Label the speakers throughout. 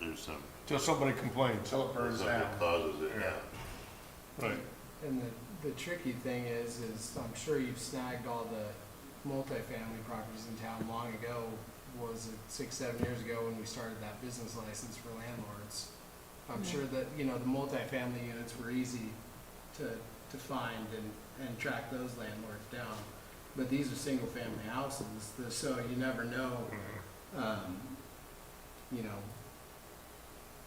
Speaker 1: do something.
Speaker 2: Till somebody complains.
Speaker 3: Till it burns
Speaker 1: something
Speaker 3: down.
Speaker 1: Causes it, yeah.
Speaker 2: Right.
Speaker 4: And the, the tricky thing is, is I'm sure you've snagged all the multifamily properties in town long ago. Was it six, seven years ago when we started that business license for landlords? I'm sure that, you know, the multifamily units were easy to, to find and, and track those landlords down. But these are single-family houses, the- so you never know, um, you know,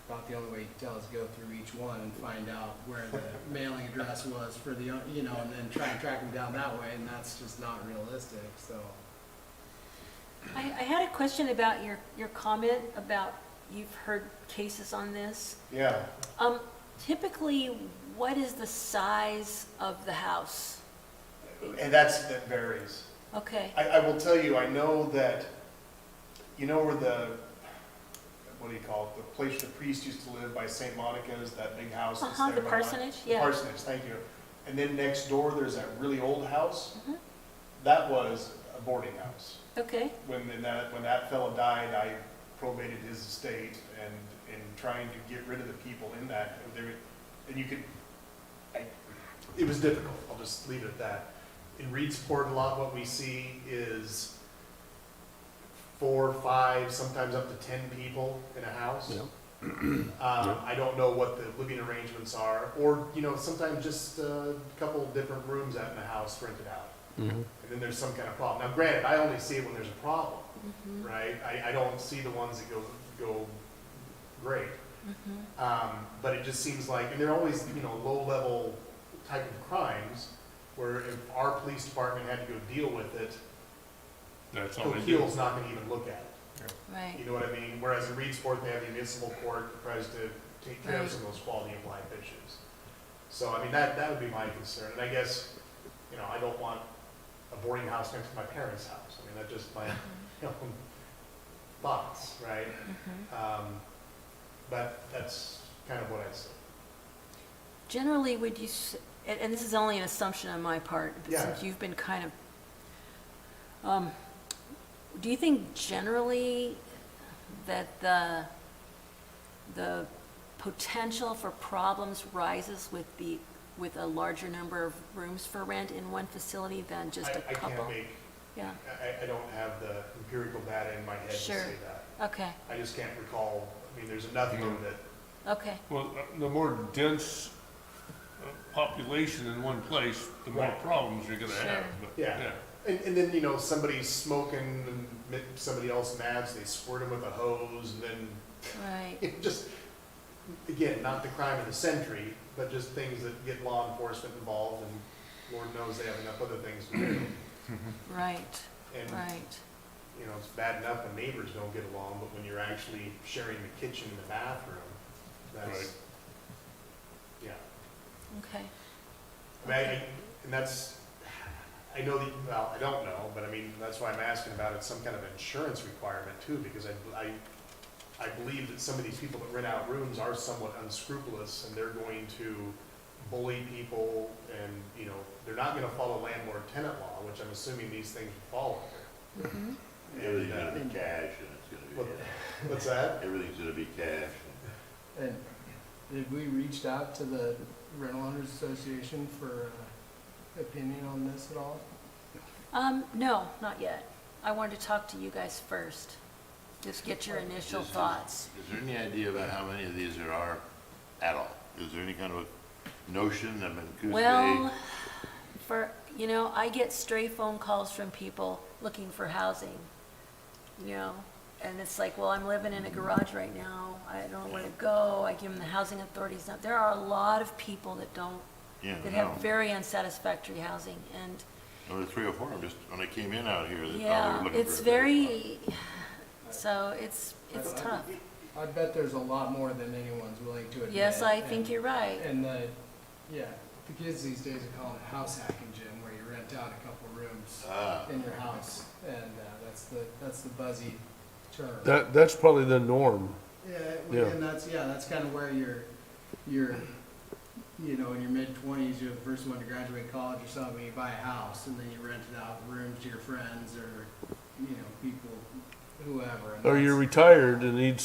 Speaker 4: about the only way you can tell is go through each one and find out where the mailing address was for the, you know, and then try and track them down that way, and that's just not realistic, so.
Speaker 5: I, I had a question about your, your comment about you've heard cases on this.
Speaker 3: Yeah,
Speaker 5: Um, typically, what is the size of the house?
Speaker 3: and that's, that varies.
Speaker 5: Okay,
Speaker 3: I, I will tell you, I know that, you know where the, what do you call it, the place the priest used to live by St. Monica's, that big house that's
Speaker 5: Uh-huh,
Speaker 3: there
Speaker 5: the
Speaker 3: by Mon-
Speaker 5: parsonage,
Speaker 3: the
Speaker 5: yeah.
Speaker 3: Parsonage, thank you. And then next door, there's that really old house.
Speaker 5: Mm-hmm.
Speaker 3: That was a boarding house.
Speaker 5: okay,
Speaker 3: When then that, when that fellow died, I probated his estate and, and trying to get rid of the people in that, there, and you could, I, it was difficult, I'll just leave it at that. In Reedsport, a lot what we see is four, five, sometimes up to ten people in a house. Um, I don't know what the living arrangements are, or, you know, sometimes just a couple different rooms out in the house rented out and then there's some kind of problem. Now, granted, I only see it when there's a problem, right? I, I don't see the ones that go, go great. Um, but it just seems like, and they're always, you know, low-level type of crimes, where if our police department had to go deal with it,
Speaker 2: That's all Oh, they do.
Speaker 3: Coquille's not gonna even look at it.
Speaker 5: right,
Speaker 3: You know what I mean? Whereas in Reedsport, they have the municipal court that tries to take care of
Speaker 5: Right.
Speaker 3: some of those quality of life issues. So, I mean, that, that would be my concern, and I guess, you know, I don't want a boarding house next to my parents' house. I mean, that's just my, you know, thoughts, right? Um, but that's kind of what I see.
Speaker 5: Generally, would you, s- and, and this is only an assumption on my part, but
Speaker 3: Yeah.
Speaker 5: since you've been kind of, um, do you think generally that the, the potential for problems rises with the, with a larger number of rooms for rent in one facility than just
Speaker 3: I-
Speaker 5: a
Speaker 3: I
Speaker 5: couple?
Speaker 3: can't make,
Speaker 5: Yeah,
Speaker 3: I, I don't have the empirical data in my head to say
Speaker 5: Sure.
Speaker 3: that.
Speaker 5: okay,
Speaker 3: I just can't recall, I mean, there's enough of them that
Speaker 5: okay,
Speaker 2: Well, uh, the more dense uh, population in one place, the more
Speaker 3: Right.
Speaker 2: problems you're gonna have.
Speaker 5: Sure.
Speaker 2: but,
Speaker 3: Yeah. And, and then, you know, somebody's smoking, and mi- somebody else nabs, they squirt him with a hose, and then,
Speaker 5: right.
Speaker 3: it just, again, not the crime of the century, but just things that get law enforcement involved, and Lord knows they have enough other things to do.
Speaker 5: Right,
Speaker 3: And,
Speaker 5: right,
Speaker 3: you know, it's bad enough when neighbors don't get along, but when you're actually sharing the kitchen and the bathroom, that's,
Speaker 2: Right.
Speaker 3: yeah.
Speaker 5: okay.
Speaker 3: I mean, I- and that's, I know that, well, I don't know, but I mean, that's why I'm asking about it, some kind of insurance requirement too, because I, I, I believe that some of these people that rent out rooms are somewhat unscrupulous and they're going to bully people and, you know, they're not gonna follow landlord-tenant law, which I'm assuming these things would fall
Speaker 5: Mhm.
Speaker 3: under.
Speaker 1: Everything's gonna be cash and it's gonna
Speaker 3: What-
Speaker 1: be,
Speaker 3: What's that?
Speaker 1: everything's gonna be cash.
Speaker 4: And did we reached out to the Rental Owners Association for uh, opinion on this at all?
Speaker 5: Um, no, not yet. I wanted to talk to you guys first. Just get your initial
Speaker 1: Is- is-
Speaker 5: thoughts.
Speaker 1: Is there any idea about how many of these there are at all? Is there any kind of a notion of Coos Bay?
Speaker 5: Well, for, you know, I get stray phone calls from people looking for housing, you know? And it's like, well, I'm living in a garage right now. I don't know where to go. I give them the housing authorities. Now, There are a lot of people that don't,
Speaker 1: Yeah,
Speaker 5: that
Speaker 1: no.
Speaker 5: have very unsatisfactory housing. And
Speaker 1: There were three or four, just when I came in out here, they thought we were
Speaker 5: Yeah,
Speaker 1: looking for.
Speaker 5: it's
Speaker 1: a-
Speaker 5: very, so it's, it's
Speaker 4: I- I-
Speaker 5: tough.
Speaker 4: I bet there's a lot more than anyone's willing to admit.
Speaker 5: Yes, I think
Speaker 4: and-
Speaker 5: you're right.
Speaker 4: And the, yeah, the kids these days are calling it house hacking, Jim, where you rent out a couple rooms
Speaker 1: Ah,
Speaker 4: in your house, and uh, that's the, that's the buzzy term.
Speaker 6: That, that's probably the norm.
Speaker 4: Yeah,
Speaker 6: Yeah.
Speaker 4: well, and that's, yeah, that's kind of where you're, you're, you know, in your mid-twenties, you're the first one to graduate college or something, you buy a house, and then you rent it out rooms to your friends or, you know, people, whoever. and
Speaker 6: Or
Speaker 4: that's-
Speaker 6: you're retired and need